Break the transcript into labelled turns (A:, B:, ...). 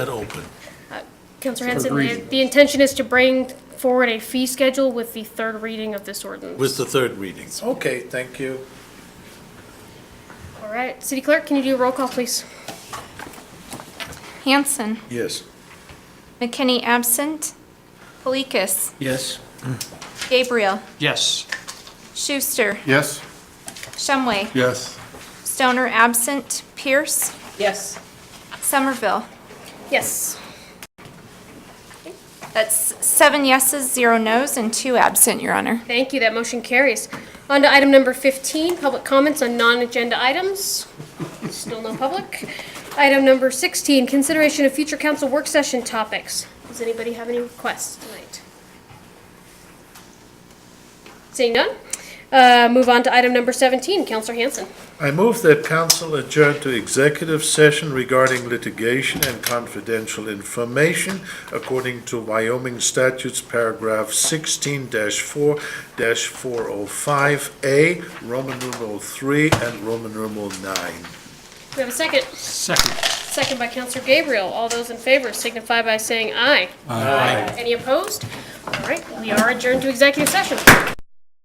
A: that open.
B: Counselor Hanson, the-
C: reading.
B: the intention is to bring forward a fee schedule with the third reading of this ordinance.
A: With the third reading.
C: Okay, thank you.
B: All right, City Clerk, can you do a roll call, please?
D: Hanson.
C: Yes.
D: McKinney absent. Polikis.
E: Yes.
D: Gabriel.
E: Yes.
D: Schuster.
C: Yes?
D: Shumway.
C: Yes.
D: Stoner absent. Pierce.
F: Yes.
D: Somerville.
B: Yes.
D: That's seven yeses, zero nos, and two absent, Your Honor.
B: Thank you, that motion carries. On to item number 15, public comments on non-agenda items. Still no public. Item number 16, consideration of future council work session topics. Does anybody have any requests tonight? Seeing none, uh, move on to item number 17, Counselor Hanson.
C: I move that council adjourn to executive session regarding litigation and confidential information according to Wyoming statutes, paragraph sixteen four four oh five A, Roman numeral three and Roman numeral nine.
B: Do we have a second?
E: Second.
B: Second by Counselor Gabriel. All those in favor signify by saying aye. Aye. Any opposed? All right, we are adjourned to executive session.